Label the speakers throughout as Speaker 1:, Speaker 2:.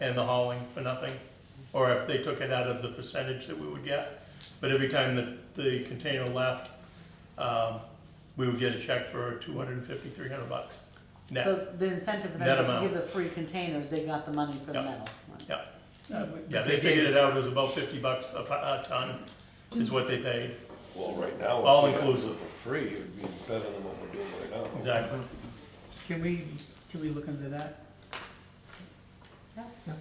Speaker 1: and the hauling for nothing, or if they took it out of the percentage that we would get. But every time that the container left, um, we would get a check for two hundred and fifty, three hundred bucks net.
Speaker 2: So the incentive for
Speaker 1: Net
Speaker 2: them to
Speaker 1: amount.
Speaker 2: give the free containers, they got the money for the
Speaker 1: Yeah.
Speaker 2: metal.
Speaker 1: Yeah,
Speaker 3: No, Uh, but-
Speaker 1: yeah, they figured it out, it was about fifty bucks a po- a ton is what they paid,
Speaker 4: Well, right now. if
Speaker 1: All
Speaker 4: we had to do it
Speaker 1: inclusive.
Speaker 4: For free, it would be better than what we're doing right now.
Speaker 1: exactly.
Speaker 3: Can we, can we look into that?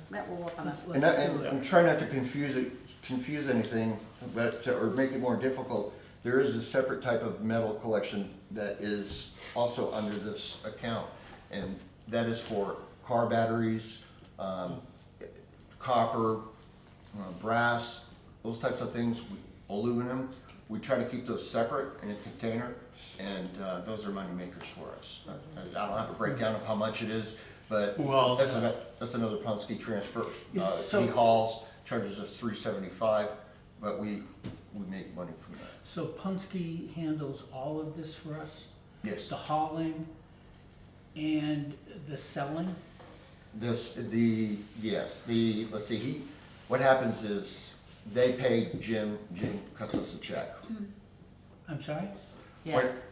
Speaker 2: Matt will work on that.
Speaker 3: Let's-
Speaker 5: And, I, and
Speaker 1: Yeah.
Speaker 5: I'm trying not to confuse it, confuse anything, but, or make it more difficult. There is a separate type of metal collection that is also under this account. And that is for car batteries, um, copper, uh, brass, those types of things, aluminum. We try to keep those separate in a container, and uh, those are money makers for us. I I don't have a breakdown of how much it is, but
Speaker 1: Well-
Speaker 5: that's another, that's another Ponsky transfer.
Speaker 3: Yeah,
Speaker 5: Uh,
Speaker 3: so-
Speaker 5: He hauls, charges us three seventy-five, but we, we make money from that.
Speaker 3: So Punske handles all of this for us?
Speaker 5: Yes,
Speaker 3: The hauling and the selling?
Speaker 5: this, the, yes, the, let's see, he, what happens is, they pay Jim, Jim cuts us a check.
Speaker 3: Mm-hmm. I'm sorry?
Speaker 2: Yes.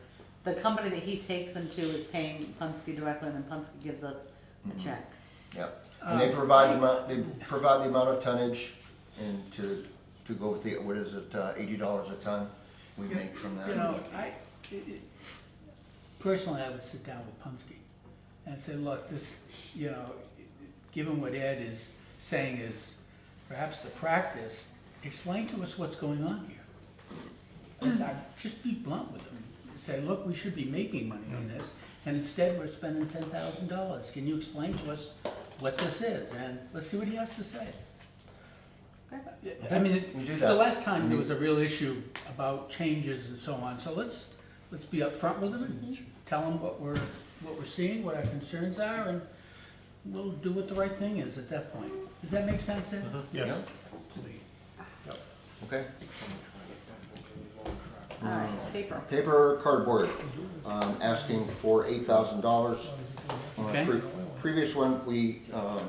Speaker 2: The company that he takes them to is paying Punske directly and then Punske gives us
Speaker 5: Mm-hmm.
Speaker 2: a check.
Speaker 5: Yep, and
Speaker 3: Uh,
Speaker 5: they provide the amount, they provide the amount of tonnage and to, to go with the, what is it, uh, eighty dollars a ton we make from that.
Speaker 3: You know, I, it- it- personally, I would sit down with Punske and say, look, this, you know, given what Ed is saying is perhaps the practice, explain to us what's going on here. And I- Just be blunt with them, say, look, we should be making money
Speaker 5: Mm.
Speaker 3: on this, and instead we're spending ten thousand dollars. Can you explain to us what this is? And let's see what he has to say. I mean,
Speaker 5: We do
Speaker 3: it- the
Speaker 5: that. Mm-hmm.
Speaker 3: last time there was a real issue about changes and so on, so let's, let's be upfront with them and tell them what we're, what we're seeing, what our concerns are, and we'll do what the right thing is at that point. Does that make sense,
Speaker 5: Mm-hmm.
Speaker 3: Ed?
Speaker 1: Yes,
Speaker 5: Okay,
Speaker 2: Alright, paper.
Speaker 5: paper cardboard, um, asking for eight thousand dollars. Uh,
Speaker 3: Okay.
Speaker 5: Previous one, we, um,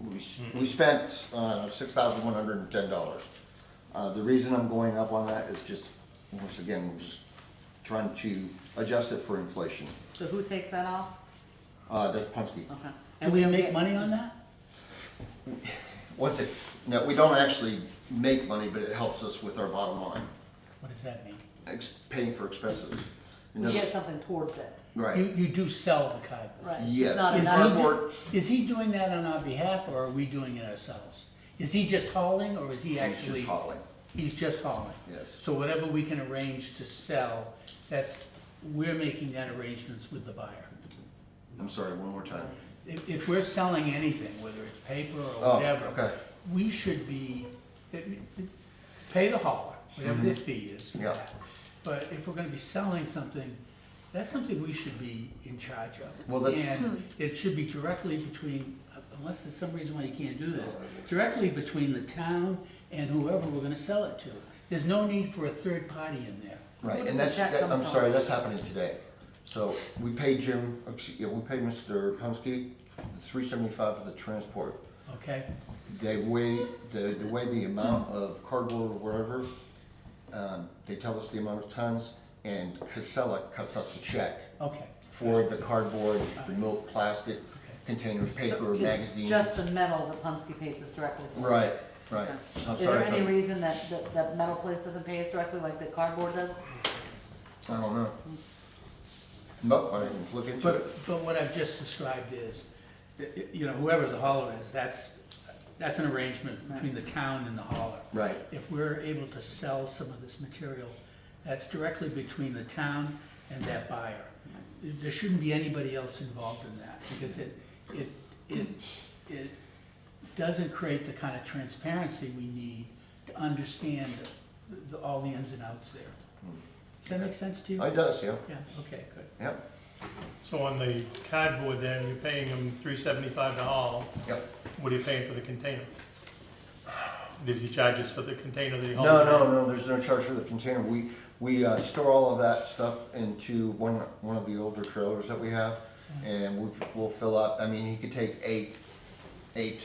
Speaker 5: we, s- we spent, uh, six thousand one hundred and ten dollars. Uh, the reason I'm going up on that is just, once again, we're just trying to adjust it for inflation.
Speaker 2: So who takes that off?
Speaker 5: Uh, that's Punske.
Speaker 2: Okay.
Speaker 3: Do
Speaker 2: And
Speaker 3: we
Speaker 2: don't
Speaker 3: make
Speaker 2: get-
Speaker 3: money on that?
Speaker 5: Once it, no, we don't actually make money, but it helps us with our bottom line,
Speaker 3: What does that mean?
Speaker 5: ex- paying for expenses. You know,
Speaker 2: You get something towards it,
Speaker 5: Right,
Speaker 3: You, you do sell the cardboard.
Speaker 2: right? It's just
Speaker 5: yes.
Speaker 2: not
Speaker 3: Is
Speaker 2: an
Speaker 3: he-
Speaker 2: item.
Speaker 5: Cardboard,
Speaker 3: Is he doing that on our behalf, or are we doing it ourselves? Is he just hauling, or is he
Speaker 5: it's
Speaker 3: actually?
Speaker 5: just hauling.
Speaker 3: He's just hauling?
Speaker 5: Yes.
Speaker 3: So whatever we can arrange to sell, that's, we're making that arrangements with the buyer.
Speaker 5: I'm sorry, one more time.
Speaker 3: If, if we're selling anything, whether it's paper or
Speaker 5: Oh,
Speaker 3: whatever.
Speaker 5: okay.
Speaker 3: We should be, pay the hauler, whatever their fee is for
Speaker 5: Mm-hmm. Yeah.
Speaker 3: that. But if we're gonna be selling something, that's something we should be in charge of.
Speaker 5: Well, that's-
Speaker 3: And it should be directly between, unless there's some reason why you can't do
Speaker 5: Oh,
Speaker 3: this, directly between the town and whoever we're gonna sell it to. There's no need for a third party in there.
Speaker 5: Right,
Speaker 2: Where does
Speaker 5: and
Speaker 2: the
Speaker 5: that's,
Speaker 2: check
Speaker 5: that-
Speaker 2: come
Speaker 5: I'm
Speaker 2: from?
Speaker 5: sorry, that's happening today. So we paid Jim, excuse- yeah, we paid Mr. Punske three seventy-five for the transport.
Speaker 3: Okay,
Speaker 5: They weigh, the, the way the amount of cardboard or whatever, um, they tell us the amount of tons, and Casella cuts us a check
Speaker 3: okay.
Speaker 5: for the cardboard, the milk, plastic containers,
Speaker 2: So
Speaker 5: paper,
Speaker 2: it's
Speaker 5: magazines.
Speaker 2: Just the metal that Punske pays us directly for.
Speaker 5: Right, right. I'm
Speaker 2: Is there
Speaker 5: sorry if
Speaker 2: any
Speaker 5: I'm-
Speaker 2: reason that, that, that metal place doesn't pay us directly like the cardboard does?
Speaker 5: I don't know. No, I didn't look into
Speaker 3: But,
Speaker 5: it.
Speaker 3: but what I've just described is, that, you know, whoever the hauler is, that's, that's an arrangement between the town and the hauler.
Speaker 5: Right.
Speaker 3: If we're able to sell some of this material, that's directly between the town and that buyer. There shouldn't be anybody else involved in that, because it, it, it, it doesn't create the kind of transparency we need to understand the- the- all the ins and outs there. Does that make sense to you?
Speaker 5: Oh, It does, yeah,
Speaker 3: Yeah, okay, good.
Speaker 5: yep,
Speaker 1: so on the cardboard then, you're paying them three seventy-five to haul,
Speaker 5: yep.
Speaker 1: what are you paying for the container? Does he charge us for the container that he hauls?
Speaker 5: No, no, no, there's no charge for the container. We, we uh, store all of that stuff into one, one of the older trailers that we have. And we'll, we'll fill up, I mean, he could take eight, uh, eight